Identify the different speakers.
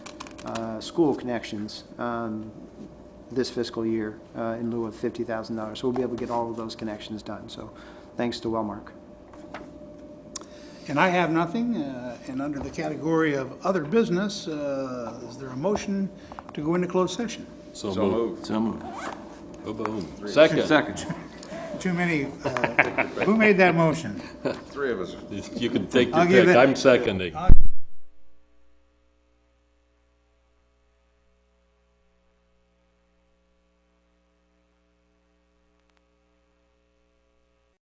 Speaker 1: uh, school connections um, this fiscal year uh, in lieu of $50,000. So we'll be able to get all of those connections done. So thanks to Wellmark.
Speaker 2: And I have nothing, uh, and under the category of other business, uh, is there a motion to go into closed session?
Speaker 3: So
Speaker 4: So
Speaker 3: moved.
Speaker 4: moved.
Speaker 3: So moved. Boom.
Speaker 4: Second.
Speaker 2: Too many, uh, who made that motion?
Speaker 4: Three of us.
Speaker 3: You can take
Speaker 2: I'll
Speaker 3: your
Speaker 2: give
Speaker 3: pick.
Speaker 2: it-
Speaker 3: I'm seconding.